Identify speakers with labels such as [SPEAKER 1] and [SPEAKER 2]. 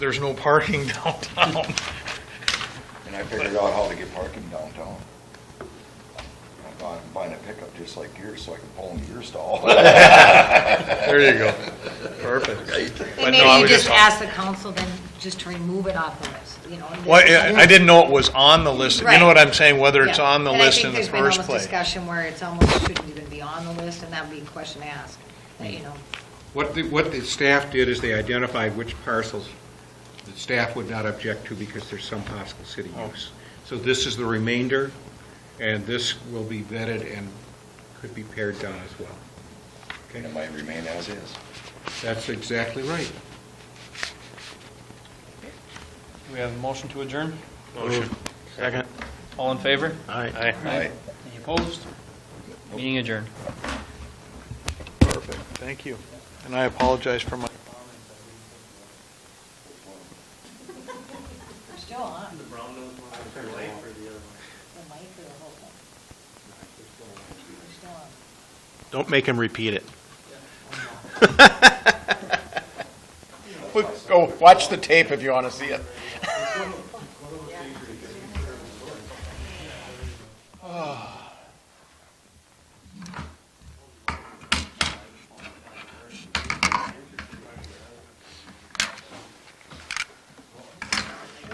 [SPEAKER 1] there's no parking downtown.
[SPEAKER 2] And I figured out how to get parking downtown. I thought I'm buying a pickup just like yours, so I can pull into your stall.
[SPEAKER 1] There you go. Perfect. But
[SPEAKER 3] And
[SPEAKER 1] no, I
[SPEAKER 3] maybe you
[SPEAKER 1] was
[SPEAKER 3] just
[SPEAKER 1] just-
[SPEAKER 3] ask the council then just to remove it off the list, you know? and
[SPEAKER 1] Well,
[SPEAKER 3] just-
[SPEAKER 1] yeah, I didn't know it was on the list. You know
[SPEAKER 3] Right.
[SPEAKER 1] what I'm saying, whether it's
[SPEAKER 3] Yeah.
[SPEAKER 1] on the
[SPEAKER 3] And I
[SPEAKER 1] list
[SPEAKER 3] think
[SPEAKER 1] in the
[SPEAKER 3] there's been
[SPEAKER 1] first
[SPEAKER 3] almost
[SPEAKER 1] place.
[SPEAKER 3] Discussion where it's almost shouldn't even be on the list, and that'd be a question to ask, you know?
[SPEAKER 4] What the, what the staff did is they identified which parcels the staff would not object to because there's some possible city use. So this is the remainder, and this will be vetted and could be pared down as well.
[SPEAKER 2] And it might remain as is.
[SPEAKER 4] That's exactly right.
[SPEAKER 5] Do we have a motion to adjourn?
[SPEAKER 1] Motion. Second.
[SPEAKER 5] All in favor?
[SPEAKER 1] Aye.
[SPEAKER 2] Right.
[SPEAKER 5] Any opposed? Meeting adjourned.
[SPEAKER 1] Perfect. Thank you. And I apologize for my.
[SPEAKER 3] We're still on. The brown nose one, the light or the other one? The light or the whole thing? We're still on.
[SPEAKER 6] Don't make him repeat it.
[SPEAKER 1] Go watch the tape if you want to see it.